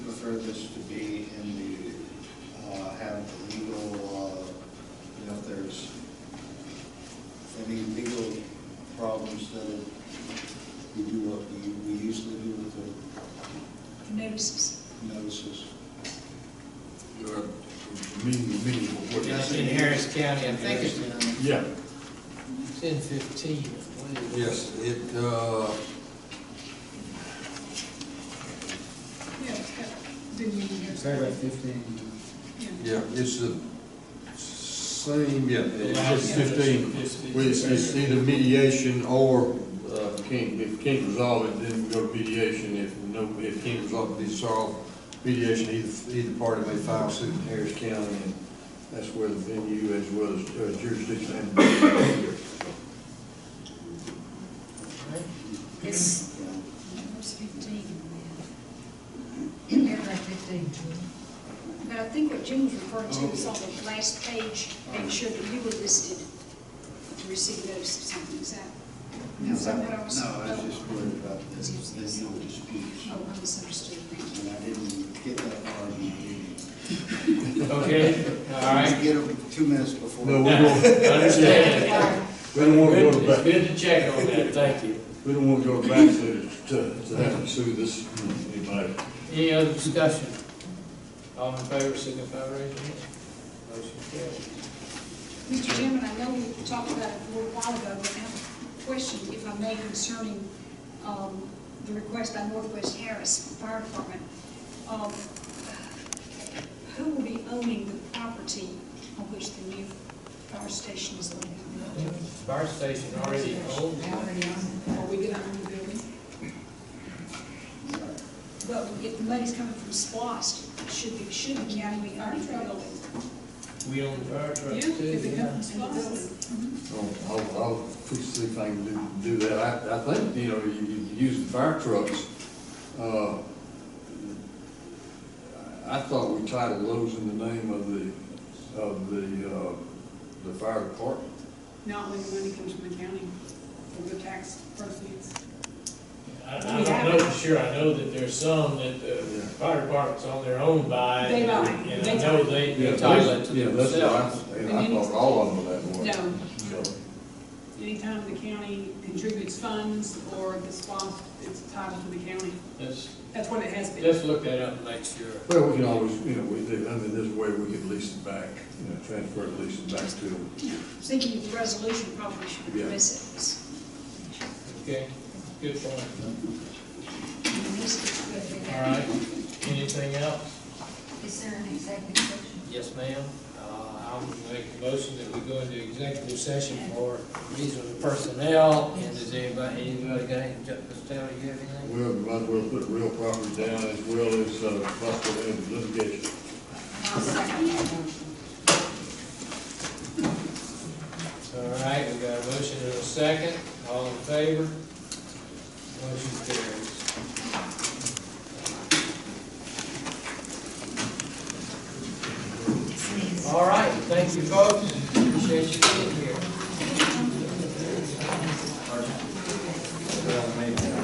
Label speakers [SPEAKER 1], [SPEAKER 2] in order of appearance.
[SPEAKER 1] for this to be in the, uh, have the legal, uh, you know, if there's any legal problems, then we do what we, we usually do with the
[SPEAKER 2] notices.
[SPEAKER 1] notices.
[SPEAKER 3] Your meeting, meeting before.
[SPEAKER 1] Yes.
[SPEAKER 4] It's in Harris County, I think it's
[SPEAKER 1] Yes,
[SPEAKER 3] Yeah.
[SPEAKER 4] ten fifteen, I believe.
[SPEAKER 3] Yes, it, uh,
[SPEAKER 2] Yeah, it's got, didn't you hear?
[SPEAKER 5] Paragraph fifteen.
[SPEAKER 3] yeah, it's the same, yeah, it's
[SPEAKER 4] Allows-
[SPEAKER 3] just fifteen. Well, It's, it's either mediation or, uh, can't, if can't resolve it, then we go to mediation. If no, if can't resolve it, be solved, mediation, either, either party may file suit in Harris County, and that's where the venue as well as uh, jurisdiction. and-
[SPEAKER 2] It's,
[SPEAKER 1] yeah.
[SPEAKER 2] where's fifteen?
[SPEAKER 6] Paragraph fifteen, Julie.
[SPEAKER 2] But I think what Jim was referring to is on the last page, make sure that you were listed to receive notice of something, is that?
[SPEAKER 1] No,
[SPEAKER 2] Is that
[SPEAKER 1] I
[SPEAKER 2] what I was-
[SPEAKER 1] was just worried about the, the legal disputes,
[SPEAKER 2] Oh, I misunderstood.
[SPEAKER 1] and I didn't get that far in the meeting.
[SPEAKER 4] Okay, all
[SPEAKER 1] You
[SPEAKER 4] right.
[SPEAKER 1] get them two minutes before.
[SPEAKER 3] No, we're going,
[SPEAKER 4] Understand.
[SPEAKER 3] we don't want to go to
[SPEAKER 4] It's
[SPEAKER 3] back.
[SPEAKER 4] good to check on that, thank you.
[SPEAKER 3] We don't want to go back to, to, to have to sue this, anybody.
[SPEAKER 4] Any other discussion? All in favor, signify by raising your hand. Motion carries.
[SPEAKER 2] Mr. Chairman, I know we talked about it a little while ago, but I have a question, if I may, concerning um, the request by Northwest Harris Fire Department. Um, Who will be owning the property on which the new fire station is located?
[SPEAKER 4] Fire station already old.
[SPEAKER 6] They already own it.
[SPEAKER 2] Are we going to own the building? But if the money's coming from SPOSS, it should be, should the county be owning the building?
[SPEAKER 4] We own the fire truck
[SPEAKER 2] Yeah, if
[SPEAKER 4] too.
[SPEAKER 2] it
[SPEAKER 4] yeah.
[SPEAKER 2] comes from SPOSS.
[SPEAKER 3] I'll, I'll, I'll fix the thing, do, do that. I, I think, you know, you, you use the fire trucks, uh, I thought we titled those in the name of the, of the, uh, the fire department.
[SPEAKER 7] Not when the money comes from the county, from the tax proceeds.
[SPEAKER 4] I, I don't know for sure, I know that there's some that the fire department's on their own by.
[SPEAKER 7] They buy.
[SPEAKER 4] And I
[SPEAKER 7] They
[SPEAKER 4] know they, they title it to
[SPEAKER 3] Yeah, that's what I-
[SPEAKER 4] themselves.
[SPEAKER 3] and I thought all of them were that way.
[SPEAKER 7] No.
[SPEAKER 3] So,
[SPEAKER 7] Anytime the county contributes funds or the sponsor, it's titled to the county.
[SPEAKER 4] Let's,
[SPEAKER 7] That's what it has been.
[SPEAKER 4] let's look that up and make sure.
[SPEAKER 3] Well, we can always, you know, we, do- I mean, there's a way we could lease it back, you know, transfer it, lease it back to them.
[SPEAKER 2] Thinking of the resolution probably should
[SPEAKER 3] Yeah.
[SPEAKER 2] address it.
[SPEAKER 4] Okay, good point. All
[SPEAKER 6] Is
[SPEAKER 4] right, anything else?
[SPEAKER 6] there an executive session?
[SPEAKER 4] Yes, ma'am. Uh, I'll make a motion that we go into executive session for reasonable personnel. And does anybody, anybody got any, Mr. Taylor, you have anything?
[SPEAKER 3] Well, we might as well put real property down as well as, uh, possible end of litigation.
[SPEAKER 6] I'll second that motion.
[SPEAKER 4] All right, we got a motion and a second. All in favor? Motion carries. All right, thank you, folks. Appreciate you being here.